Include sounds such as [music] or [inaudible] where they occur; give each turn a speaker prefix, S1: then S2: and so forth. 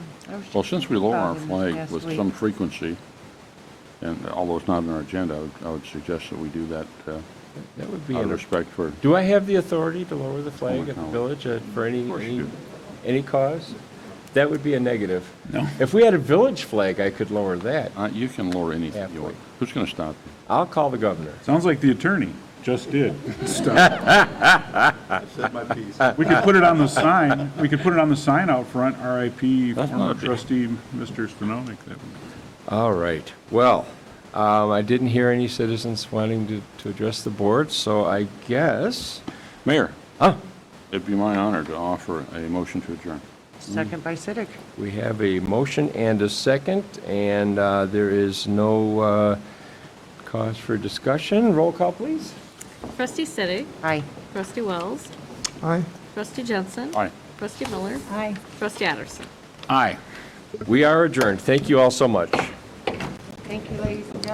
S1: I was just
S2: Well, since we lower our
S1: thinking about it in the
S2: flag
S1: past
S2: with
S1: week.
S2: some frequency, and although it's not on our agenda, I would, I would suggest that we do that uh,
S3: That would be,
S2: out of
S3: a-
S2: respect for,
S3: do I have the authority to lower the flag at the
S2: no.
S3: village uh, for any,
S2: course you
S3: any,
S2: do.
S3: any cause? That would be a negative.
S2: No.
S3: If we had a village flag, I could lower that.
S2: Uh, you can lower anything
S3: Halfway.
S2: you want. Who's going to stop you?
S3: I'll call the governor.
S4: Sounds like the attorney just did.
S2: [laughs]
S5: I said my piece.
S4: We could put it on the sign, we could put it on the sign out front, RIP
S2: That's not a
S4: former
S2: big-
S4: trustee, Mr. Spinonik. That would-
S3: All right. Well, um, I didn't hear any citizens wanting to, to address the board, so I guess,
S2: Mayor,
S3: huh,
S2: it'd be my honor to offer a motion to adjourn.
S1: Second by Siddick.
S3: we have a motion and a second, and uh, there is no uh, cause for discussion. Roll call, please.
S6: Trustee Siddick.
S1: Aye.
S6: Trustee Wells.
S3: Aye.
S6: Trustee Jensen.
S2: Aye.
S6: Trustee Miller.
S1: Aye.
S6: Trustee Addison.
S3: Aye. We are adjourned. Thank you all so much.
S1: Thank you, ladies and gentlemen.